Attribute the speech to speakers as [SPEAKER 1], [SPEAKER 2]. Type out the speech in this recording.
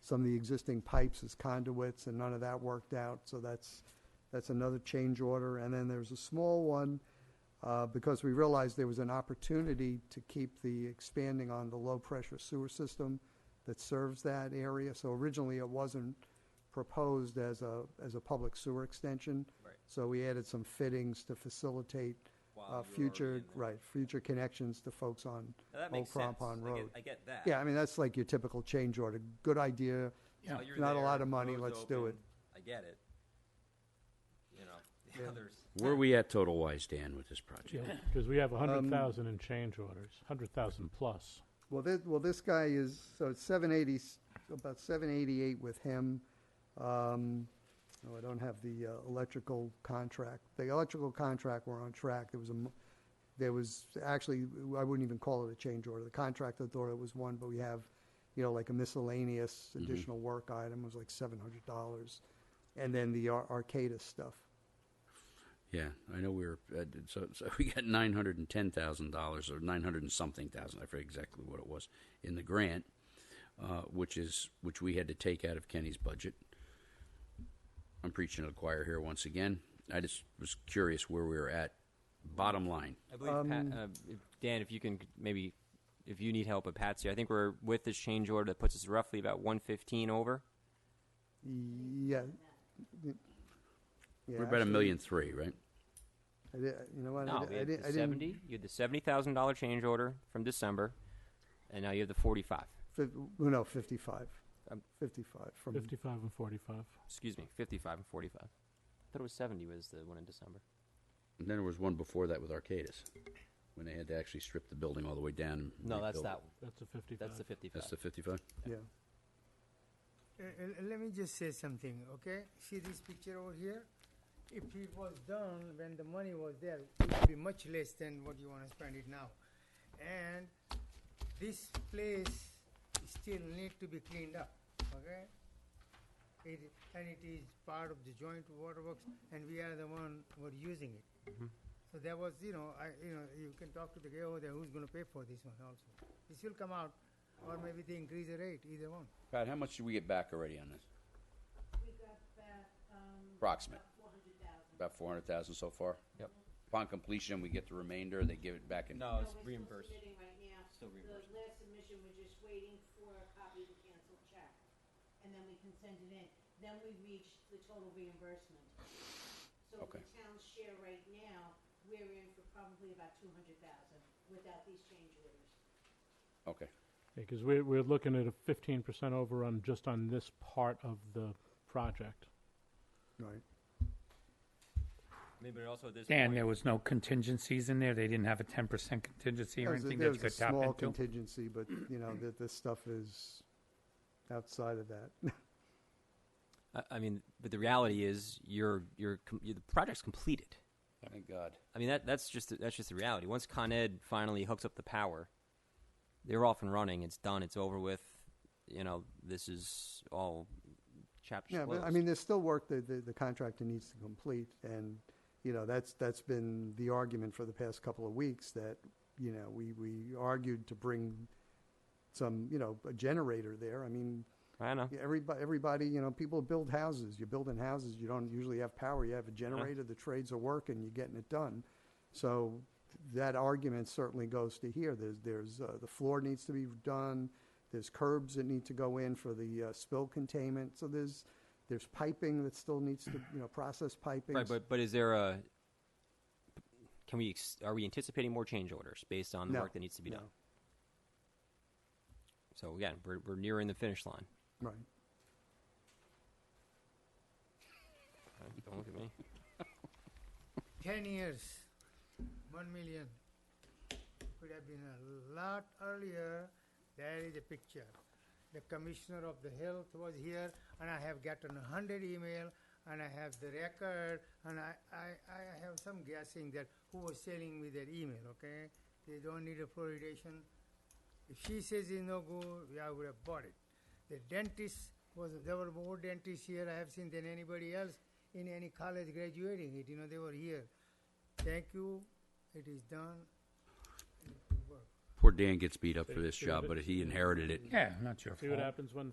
[SPEAKER 1] some of the existing pipes as conduits, and none of that worked out, so that's, that's another change order. And then there's a small one, uh, because we realized there was an opportunity to keep the expanding on the low-pressure sewer system that serves that area. So originally, it wasn't proposed as a, as a public sewer extension.
[SPEAKER 2] Right.
[SPEAKER 1] So we added some fittings to facilitate
[SPEAKER 2] While
[SPEAKER 1] uh,
[SPEAKER 2] you were already
[SPEAKER 1] future,
[SPEAKER 2] in there.
[SPEAKER 1] right, future connections to folks on
[SPEAKER 2] Now, that
[SPEAKER 1] Old
[SPEAKER 2] makes sense.
[SPEAKER 1] Crampon
[SPEAKER 2] I get-
[SPEAKER 1] Road.
[SPEAKER 2] I get that.
[SPEAKER 1] Yeah, I mean, that's like your typical change order. Good idea.
[SPEAKER 3] Yeah.
[SPEAKER 2] While you're
[SPEAKER 1] Not a
[SPEAKER 2] there,
[SPEAKER 1] lot of
[SPEAKER 2] the
[SPEAKER 1] money,
[SPEAKER 2] road's
[SPEAKER 1] let's do
[SPEAKER 2] open. I get it. You know, the others,
[SPEAKER 4] Where are we at total wise, Dan, with this project?
[SPEAKER 5] Because we have a hundred thousand in change orders, hundred thousand plus.
[SPEAKER 1] Well, this, well, this guy is, so it's seven eighty, about seven eighty-eight with him. Um, oh, I don't have the uh, electrical contract. The electrical contract, we're on track. There was a, mo- there was, actually, I wouldn't even call it a change order. The contractor thought it was one, but we have, you know, like a miscellaneous additional work item was like seven hundred dollars. And then the Ar- Arcata stuff.
[SPEAKER 4] Yeah, I know we were, uh, so, so we got nine hundred and ten thousand dollars or nine hundred and something thousand, I forget exactly what it was, in the grant, uh, which is, which we had to take out of Kenny's budget. I'm preaching to the choir here once again. I just was curious where we were at. Bottom line,
[SPEAKER 2] I
[SPEAKER 1] Um,
[SPEAKER 2] believe Pat,
[SPEAKER 1] Pat-
[SPEAKER 6] Uh, if- Dan, if you can c- maybe, if you need help with Patsy, I think we're with this change order that puts us roughly about 115 over.
[SPEAKER 1] Yeah. Yeah,
[SPEAKER 4] we're about a
[SPEAKER 1] actually,
[SPEAKER 4] million three, right?
[SPEAKER 1] I di- You know what? I
[SPEAKER 6] No,
[SPEAKER 1] di-
[SPEAKER 6] we
[SPEAKER 1] I
[SPEAKER 6] had
[SPEAKER 1] di-
[SPEAKER 6] the
[SPEAKER 1] I didn't-
[SPEAKER 6] 70. You had the 70 thousand dollar change order from December, and now you have the 45.
[SPEAKER 1] Fif- well, no, 55.
[SPEAKER 6] Um,
[SPEAKER 1] 55 from,
[SPEAKER 5] Fifty-five and forty-five.
[SPEAKER 6] Excuse me, 55 and 45. I thought it was 70 was the one in December.
[SPEAKER 4] And then there was one before that with Arcadis, when they had to actually strip the building all the way down. and
[SPEAKER 6] No, that's
[SPEAKER 4] rebuild it.
[SPEAKER 6] that one.
[SPEAKER 5] That's a fifty-five.
[SPEAKER 6] That's the 55.
[SPEAKER 4] That's the fifty-five?
[SPEAKER 1] yeah.
[SPEAKER 3] Uh, uh, let me just say something, okay? See this picture over here? If it was done when the money was there, it would be much less than what you want to spend it now. And this place still need to be cleaned up, okay? It, and it is part of the joint waterworks, and we are the one who are using it. So there was, you know, I, you know, you can talk to the guy over there who's going to pay for this one also. This will come out, or maybe they increase the rate, either one.
[SPEAKER 4] Pat, how much did we get back already on this?
[SPEAKER 7] We got back, um,
[SPEAKER 4] Approximate,
[SPEAKER 7] four hundred thousand.
[SPEAKER 4] about four hundred thousand so far?
[SPEAKER 2] Yep.
[SPEAKER 4] Upon completion, we get the remainder, they give it back in?
[SPEAKER 2] no, Oh, it's
[SPEAKER 7] We're still
[SPEAKER 2] reimbursed.
[SPEAKER 7] submitting right now.
[SPEAKER 2] Still reimbursed.
[SPEAKER 7] The last submission, we're just waiting for a copy of the canceled check, and then we can send it in. Then we reach the total reimbursement. So
[SPEAKER 4] Okay.
[SPEAKER 7] the town's share right now, we're in for probably about two hundred thousand without these change orders.
[SPEAKER 4] Okay,
[SPEAKER 5] Because we're, we're looking at a fifteen percent overrun just on this part of the project.
[SPEAKER 1] Right.
[SPEAKER 6] I mean, but also at this
[SPEAKER 8] Dan,
[SPEAKER 6] point-
[SPEAKER 8] there was no contingencies in there? They didn't have a ten percent contingency or
[SPEAKER 1] There's a-
[SPEAKER 8] anything that you
[SPEAKER 1] there's a
[SPEAKER 8] could tap
[SPEAKER 1] Small
[SPEAKER 8] into?
[SPEAKER 1] contingency, but, you know, that this stuff is outside of that.
[SPEAKER 6] I, I mean, but the reality is, you're, you're, com- you the project's completed.
[SPEAKER 4] thank God.
[SPEAKER 6] I mean, that, that's just that's just the reality. Once Con Ed finally hooks up the power, they're off and running. It's done. It's over with. You know, this is all chapter.
[SPEAKER 1] Yeah, but I mean, there's still work that the, the contractor needs to complete, and, you know, that's, that's been the argument for the past couple of weeks, that, you know, we, we argued to bring some, you know, a generator there. I mean,
[SPEAKER 6] I know.
[SPEAKER 1] everybody, everybody, you know, people build houses. You're building houses. You don't usually have power. You have
[SPEAKER 6] Uh-huh.
[SPEAKER 1] a generator. The trades are working. You're getting it done. So that argument certainly goes to here. There's, there's uh, the floor needs to be done. There's curbs that need to go in for the uh, spill containment. So there's, there's piping that still needs to, you know, process piping.
[SPEAKER 6] Right, but but is there a? Can we? Ex- are we anticipating more change orders based on the
[SPEAKER 1] No,
[SPEAKER 6] work that needs to be
[SPEAKER 1] no.
[SPEAKER 6] done? So again, we're we're nearing the finish line.
[SPEAKER 1] Right.
[SPEAKER 6] Uh, Don't look at me.
[SPEAKER 3] 10 years, 1 million. Could have been a lot earlier. There is a picture. The commissioner of the health was here, and I have gotten 100 email, and I have the record, and I, I, I have some guessing that who was selling me that email, okay? They don't need a fluoridation. If she says it's no good, yeah, I would have bought it. The dentist was there were more dentists here I have seen than anybody else in any college graduating it. You know, they were here. Thank you. It is done. It will work.
[SPEAKER 4] Poor Dan gets beat up for this
[SPEAKER 5] See
[SPEAKER 4] job,
[SPEAKER 5] what-
[SPEAKER 4] but he inherited it.
[SPEAKER 8] Yeah, not your
[SPEAKER 5] See what
[SPEAKER 8] fault.
[SPEAKER 5] happens when